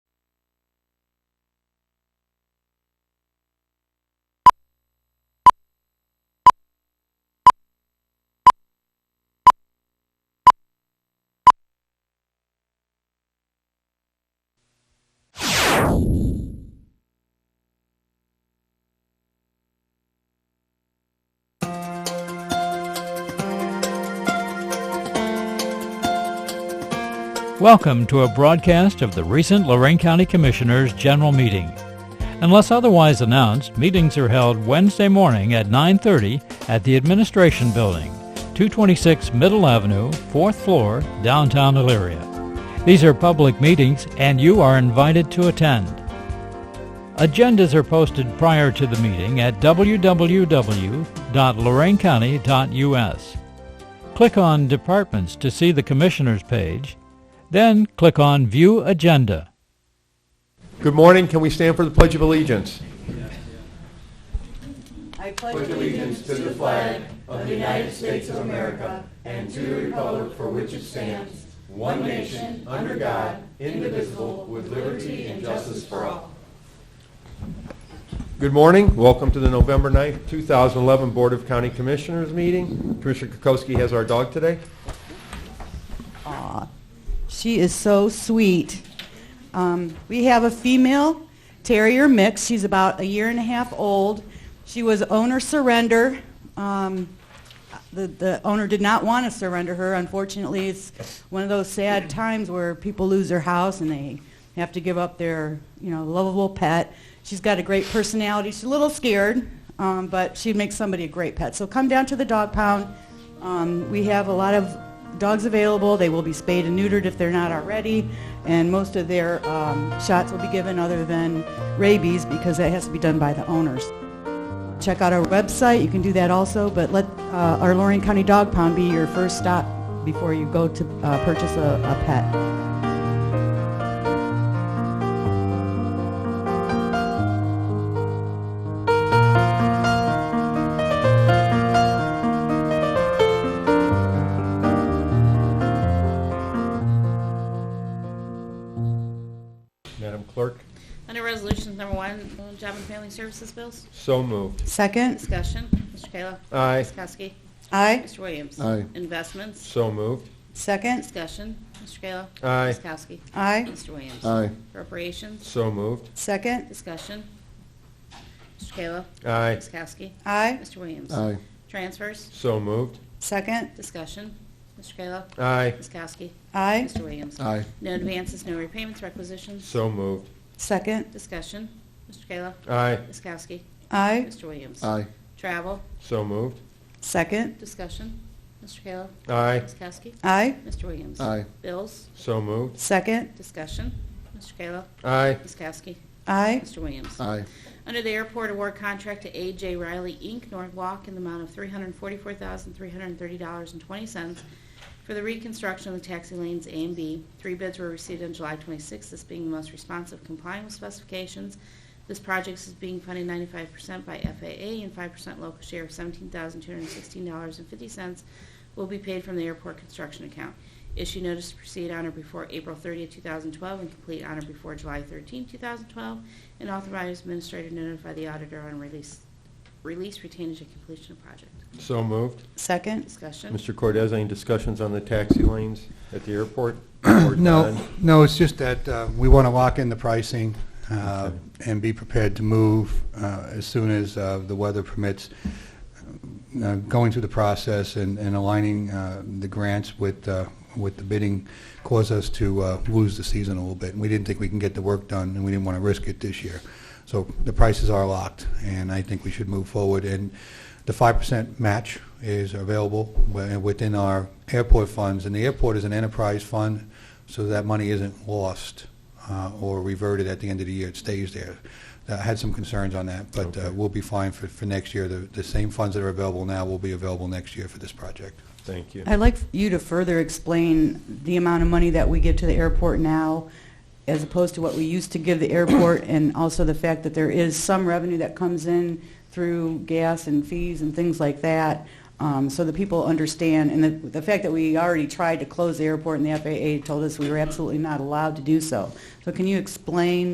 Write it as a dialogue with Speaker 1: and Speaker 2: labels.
Speaker 1: Welcome to a broadcast of the recent Lorraine County Commissioners' General Meeting. Unless otherwise announced, meetings are held Wednesday morning at 9:30 at the Administration Building, 226 Middle Avenue, 4th floor, downtown Elyria. These are public meetings and you are invited to attend. Agendas are posted prior to the meeting at www.loraincounty.us. Click on Departments to see the Commissioners page, then click on View Agenda.
Speaker 2: Good morning. Can we stand for the Pledge of Allegiance? Good morning. Welcome to the November 9th, 2011 Board of County Commissioners meeting. Commissioner Kokoski has our dog today.
Speaker 3: She is so sweet. Um, we have a female terrier mix. She's about a year and a half old. She was owner surrender. Um, the, the owner did not want to surrender her. Unfortunately, it's one of those sad times where people lose their house and they have to give up their, you know, lovable pet. She's got a great personality. She's a little scared, um, but she makes somebody a great pet. So come down to the dog pound. Um, we have a lot of dogs available. They will be spayed and neutered if they're not already, and most of their um, shots will be given other than rabies because that has to be done by the owners check out our website. You can do that also, but let uh, our Lorraine County Dog Pound be your first stop before you go to uh, purchase a, a pet.
Speaker 2: Madam Clerk,
Speaker 4: Under Resolutions Number One, uh, Job and Family Services Bills.
Speaker 2: so moved.
Speaker 3: Second,
Speaker 4: Discussion. Mr. Kayla.
Speaker 2: Aye.
Speaker 4: Ms. Kowski.
Speaker 3: aye.
Speaker 4: Mr. Williams.
Speaker 5: Aye.
Speaker 4: Investments.
Speaker 2: So moved.
Speaker 3: Second,
Speaker 4: Discussion. Mr. Kayla.
Speaker 2: Aye.
Speaker 4: Ms. Kowski.
Speaker 3: aye.
Speaker 4: Mr. Williams.
Speaker 5: Aye,
Speaker 4: Appropriations.
Speaker 2: So moved.
Speaker 3: Second,
Speaker 4: Discussion. Mr. Kayla.
Speaker 2: Aye.
Speaker 4: Ms. Kowski.
Speaker 3: aye.
Speaker 4: Mr. Williams.
Speaker 5: aye,
Speaker 4: Transfers.
Speaker 2: So moved.
Speaker 3: Second,
Speaker 4: Discussion. Mr. Kayla.
Speaker 2: Aye.
Speaker 4: Ms. Kowski.
Speaker 3: aye.
Speaker 4: Mr. Williams.
Speaker 5: aye,
Speaker 4: No advances, no repayments, requisitions.
Speaker 2: So moved.
Speaker 3: Second,
Speaker 4: Discussion. Mr. Kayla.
Speaker 2: Aye.
Speaker 4: Ms. Kowski.
Speaker 3: aye.
Speaker 4: Mr. Williams.
Speaker 5: aye,
Speaker 4: Travel.
Speaker 2: So moved.
Speaker 3: Second,
Speaker 4: Discussion. Mr. Kayla.
Speaker 2: Aye.
Speaker 4: Ms. Kowski.
Speaker 3: aye.
Speaker 4: Mr. Williams.
Speaker 5: aye,
Speaker 4: Bills,
Speaker 2: So moved.
Speaker 3: Second,
Speaker 4: discussion. Mr. Kayla.
Speaker 2: Aye.
Speaker 4: Ms. Kowski.
Speaker 3: aye.
Speaker 4: Mr. Williams.
Speaker 5: aye,
Speaker 4: Under the airport award contract to A.J. Riley, Inc., Norwalk, in the amount of $344,330.20 for the reconstruction of the taxi lanes A and B. Three bids were received on July 26th, this being the most responsive complying with specifications. This project is being funded 95% by FAA and 5% local share of $17,216.50 will be paid from the airport construction account. Issue notice to proceed on or before April 30, 2012, and complete on or before July 13, 2012, and authorize administrator to notify the auditor on release, release retainage and completion of project.
Speaker 2: So moved.
Speaker 3: Second,
Speaker 4: Discussion.
Speaker 2: Mr. Cordez, any discussions on the taxi lanes at the airport? Or
Speaker 6: No,
Speaker 2: none?
Speaker 6: no, it's just that uh, we want to lock in the pricing uh,
Speaker 2: Okay.
Speaker 6: and be prepared to move uh, as soon as uh, the weather permits. Uh, Going through the process and and aligning uh, the grants with, uh, with the bidding caused us to uh, lose the season a little bit. And we didn't think we can get the work done, and we didn't want to risk it this year. So the prices are locked, and I think we should move forward. And the 5% match is available wi- within our airport funds, and the airport is an enterprise fund, so that money isn't lost uh, or reverted at the end of the year, it stays there. I had some concerns on that, but uh, we'll be fine for, for next year. The, the same funds that are available now will be available next year for this project.
Speaker 2: Thank you.
Speaker 3: I'd like you to further explain the amount of money that we give to the airport now as opposed to what we used to give the airport and also the fact that there is some revenue that comes in through gas and fees and things like that. Um, so the people understand and the, the fact that we already tried to close the airport and the FAA told us we were absolutely not allowed to do so. So can you explain